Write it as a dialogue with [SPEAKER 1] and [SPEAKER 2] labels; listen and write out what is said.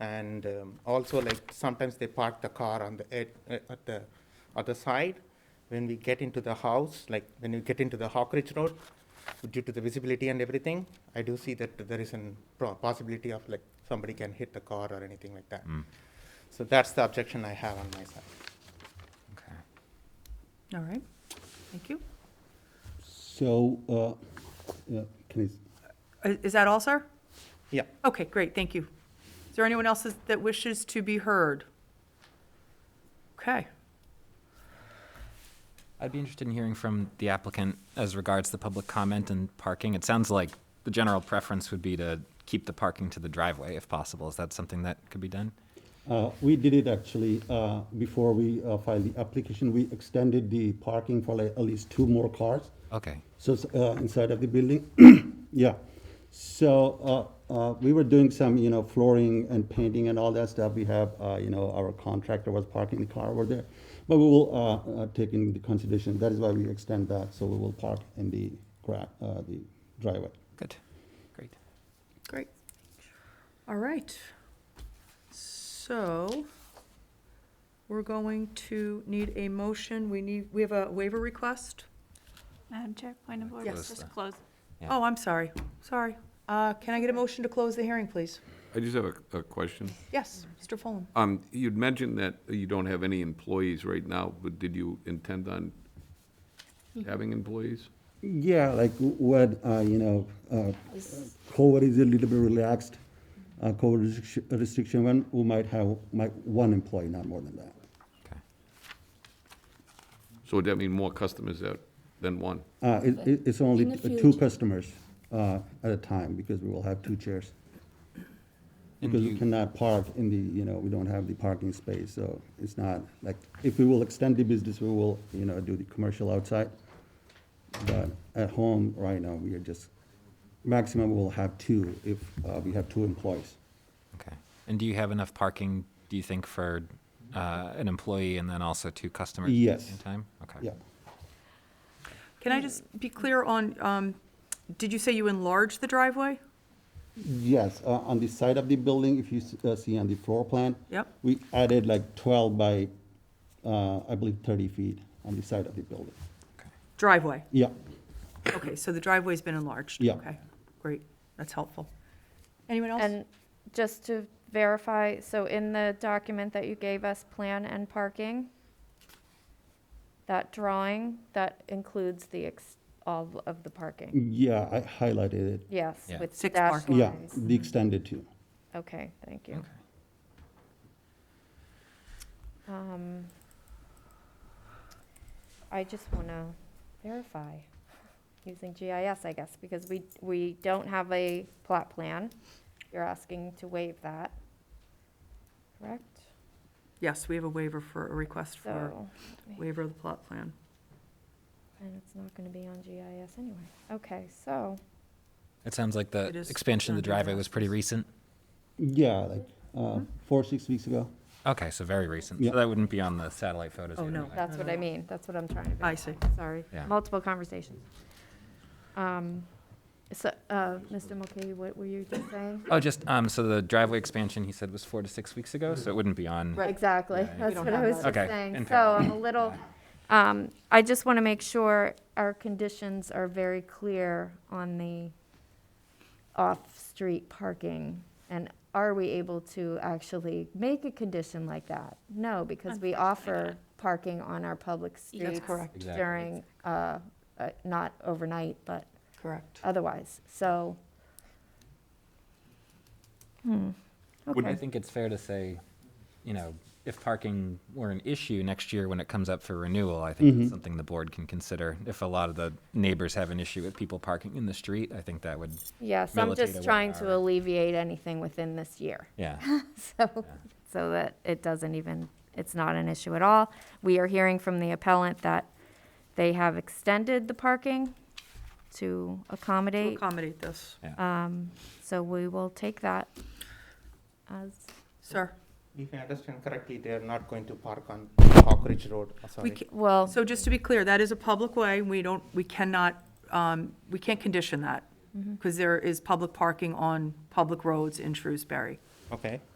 [SPEAKER 1] and um, also like sometimes they park the car on the ed, uh, at the other side. When we get into the house, like when you get into the Hawkridge Road, due to the visibility and everything, I do see that there is a possibility of like somebody can hit the car or anything like that. So that's the objection I have on my side.
[SPEAKER 2] Okay.
[SPEAKER 3] All right, thank you.
[SPEAKER 4] So, uh, uh, can I,
[SPEAKER 3] I- Uh, Is that all, sir?
[SPEAKER 1] Yeah.
[SPEAKER 3] Okay, great, thank you. Is there anyone else that wishes to be heard? Okay,
[SPEAKER 2] I'd be interested in hearing from the applicant as regards the public comment and parking. It sounds like the general preference would be to keep the parking to the driveway if possible. Is that something that could be done?
[SPEAKER 4] uh, we did it actually, uh, before we uh, filed the application, we extended the parking for like at least two more cars.
[SPEAKER 2] Okay.
[SPEAKER 4] So, it's, uh, inside of the building, yeah. So, uh, uh, we were doing some, you know, flooring and painting and all that stuff. We have, uh, you know, our contractor was parking the car over there. But we will, uh, uh, take into consideration, that is why we extend that, so we will park in the gra, uh, the driveway.
[SPEAKER 2] Good. Great.
[SPEAKER 3] great. All right. So we're going to need a motion. We need, we have a waiver request.
[SPEAKER 5] Madam Chair, point of order.
[SPEAKER 2] Yes.
[SPEAKER 5] Just close.
[SPEAKER 2] Yeah.
[SPEAKER 3] Oh, I'm sorry, sorry. Uh, Can I get a motion to close the hearing, please?
[SPEAKER 6] I just have a, a question.
[SPEAKER 3] Yes, Mr. Fulham.
[SPEAKER 6] Um, you'd mentioned that you don't have any employees right now, but did you intend on having employees?
[SPEAKER 4] Yeah, like what, uh, you know, uh, COVID is a little bit relaxed, uh, COVID restriction- restriction, when we might have, might, one employee, not more than that.
[SPEAKER 2] Okay.
[SPEAKER 6] So would that mean more customers that, than one?
[SPEAKER 4] Uh, it, it- it's only
[SPEAKER 7] In the
[SPEAKER 4] t- two
[SPEAKER 7] future.
[SPEAKER 4] customers, uh, at a time, because we will have two chairs.
[SPEAKER 2] And
[SPEAKER 4] Because we
[SPEAKER 2] you-
[SPEAKER 4] cannot park in the, you know, we don't have the parking space, so it's not, like, if we will extend the business, we will, you know, do the commercial outside. But at home, right now, we are just, maximum we will have two if, uh, we have two employees.
[SPEAKER 2] Okay. And do you have enough parking, do you think, for uh, an employee and then also two customers at
[SPEAKER 4] Yes.
[SPEAKER 2] the same time? Okay.
[SPEAKER 4] Yeah.
[SPEAKER 3] Can I just be clear on, um, did you say you enlarged the driveway?
[SPEAKER 4] Yes, uh, on the side of the building, if you s- uh, see on the floor plan.
[SPEAKER 3] Yep.
[SPEAKER 4] We added like twelve by, uh, I believe thirty feet on the side of the building.
[SPEAKER 3] Driveway?
[SPEAKER 4] Yeah,
[SPEAKER 3] Okay, so the driveway's been enlarged?
[SPEAKER 4] Yeah.
[SPEAKER 3] Okay, great, that's helpful. Anyone else?
[SPEAKER 7] And just to verify, so in the document that you gave us, plan and parking, that drawing, that includes the, ex- all of the parking?
[SPEAKER 4] yeah, I highlighted it.
[SPEAKER 7] Yes,
[SPEAKER 2] Yeah.
[SPEAKER 7] with
[SPEAKER 3] Six
[SPEAKER 7] dash
[SPEAKER 3] parking.
[SPEAKER 4] Mm. Yeah,
[SPEAKER 7] lines.
[SPEAKER 4] the extended two.
[SPEAKER 7] Okay, thank you.
[SPEAKER 2] Okay.
[SPEAKER 7] Um, I just want to verify, using GIS, I guess, because we, we don't have a plot plan. You're asking to waive that, correct?
[SPEAKER 3] Yes, we have a waiver for, a request for
[SPEAKER 7] So.
[SPEAKER 3] waiver of the plot plan.
[SPEAKER 7] And it's not gonna be on GIS anyway. Okay, so,
[SPEAKER 2] It sounds like the
[SPEAKER 3] It is
[SPEAKER 2] expansion of the
[SPEAKER 3] under
[SPEAKER 2] driveway was pretty
[SPEAKER 3] analysis.
[SPEAKER 2] recent.
[SPEAKER 4] Yeah, like, uh, four, six weeks ago.
[SPEAKER 2] Okay, so very recent.
[SPEAKER 4] Yeah.
[SPEAKER 2] So that wouldn't be on the satellite photos.
[SPEAKER 3] Oh,
[SPEAKER 2] yet
[SPEAKER 3] no.
[SPEAKER 2] anyway.
[SPEAKER 7] that's what I
[SPEAKER 3] no.
[SPEAKER 7] mean, that's what I'm trying to.
[SPEAKER 3] I
[SPEAKER 7] verify.
[SPEAKER 3] see.
[SPEAKER 7] Sorry,
[SPEAKER 2] Yeah.
[SPEAKER 7] multiple conversations. Um, so, uh, Mr. Mulcahy, what were you just saying?
[SPEAKER 2] Oh, just, um, so the driveway expansion, he said, was four to six weeks ago, so it wouldn't be on.
[SPEAKER 3] Right.
[SPEAKER 7] Exactly,
[SPEAKER 2] Yeah, you
[SPEAKER 7] that's
[SPEAKER 3] don't
[SPEAKER 7] what I
[SPEAKER 3] have
[SPEAKER 7] was
[SPEAKER 3] that.
[SPEAKER 7] just
[SPEAKER 2] Okay,
[SPEAKER 7] saying.
[SPEAKER 2] in
[SPEAKER 7] So I'm a little, um, I just wanna make sure our conditions are very clear on the off-street parking. And are we able to actually make a condition like that? No, because we offer parking on our public streets.
[SPEAKER 3] correct.
[SPEAKER 2] Exactly.
[SPEAKER 7] During, uh, uh, not overnight, but
[SPEAKER 3] Correct.
[SPEAKER 7] Uh, otherwise, so. Hmm,
[SPEAKER 2] Would I
[SPEAKER 7] okay,
[SPEAKER 2] think it's fair to say, you know, if parking were an issue next year when it comes up for renewal, I think it's something the board can consider. If a lot of the neighbors have an issue with people parking in the street, I think that would,
[SPEAKER 7] yes, I'm
[SPEAKER 2] militate
[SPEAKER 7] just
[SPEAKER 2] away
[SPEAKER 7] trying
[SPEAKER 2] our-
[SPEAKER 7] to alleviate anything within this year.
[SPEAKER 2] yeah.
[SPEAKER 7] so, so that it doesn't even, it's not an issue at all. We are hearing from the appellant that they have extended the parking to
[SPEAKER 3] To
[SPEAKER 7] accommodate,
[SPEAKER 3] accommodate this,
[SPEAKER 7] so we will take that as,
[SPEAKER 3] sir.
[SPEAKER 1] If I understand correctly, they are not going to park on Hawkridge Road. Oh,
[SPEAKER 3] We,
[SPEAKER 1] sorry.
[SPEAKER 3] ca-
[SPEAKER 7] well,
[SPEAKER 3] so just to be clear, that is a public way, we don't, we cannot, um, we can't
[SPEAKER 7] Mm-hmm.
[SPEAKER 3] condition that, because there is public parking on public roads in Shrewsbury.
[SPEAKER 1] Okay.